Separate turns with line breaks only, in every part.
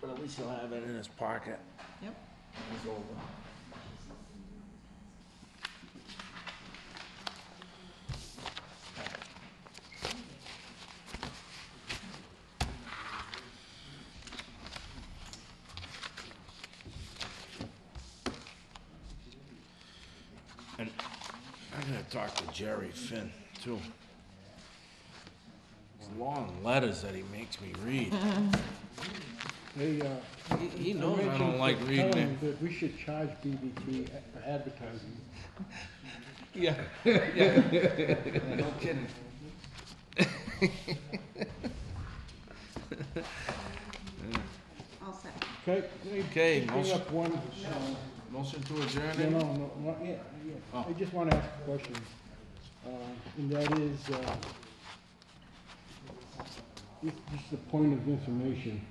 But at least he'll have it in his pocket.
Yep.
when He's older. And I'm gonna talk to Jerry Finn too. These long letters that he makes me read.
They, uh.
He- He
I
knows I don't
mentioned
like
to
reading
Colin
it.
That we should charge BBT a- for advertising.
Yeah, yeah. No kidding.
All set.
Okay? they-
Okay,
they Bring
motion-
up one,
Motion to adjourn
no, no,
it?
no, no, yeah, yeah.
Oh.
I just wanna ask a question. Uh, and that is, uh, this, this is a point of information.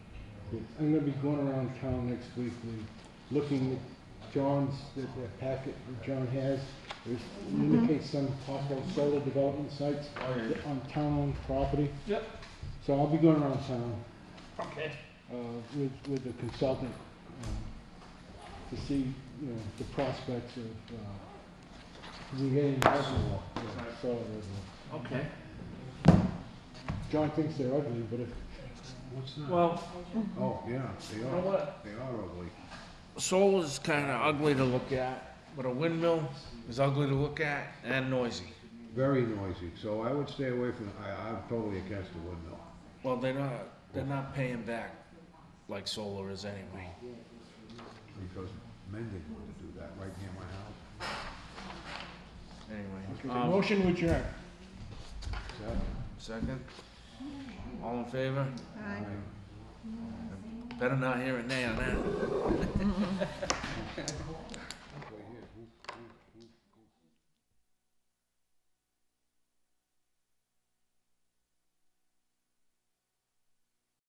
I'm gonna be going around town next week and looking at John's, that that packet that John has. There's indicates some possible solar development sites
Oh, yeah.
on town-owned property.
Yep.
So I'll be going around town
Okay.
uh, with, with the consultant uh, to see, you know, the prospects of uh, regaining reservoir. yeah, soil reservoir.
Okay.
John thinks they're ugly, but if,
What's that?
Well,
Oh, yeah, they
you know
are,
what?
they are ugly.
Solar's kinda ugly to look at, but a windmill is ugly to look at and noisy.
Very noisy, so I would stay away from, I, I'm totally against the windmill.
Well, they're not, they're not paying back like solar is anyway.
Because men didn't want to do that right near my house.
Anyway,
okay,
um,
motion would adjourn.
Seven.
second? All in favor?
Bye.
Better not hear a nay on that.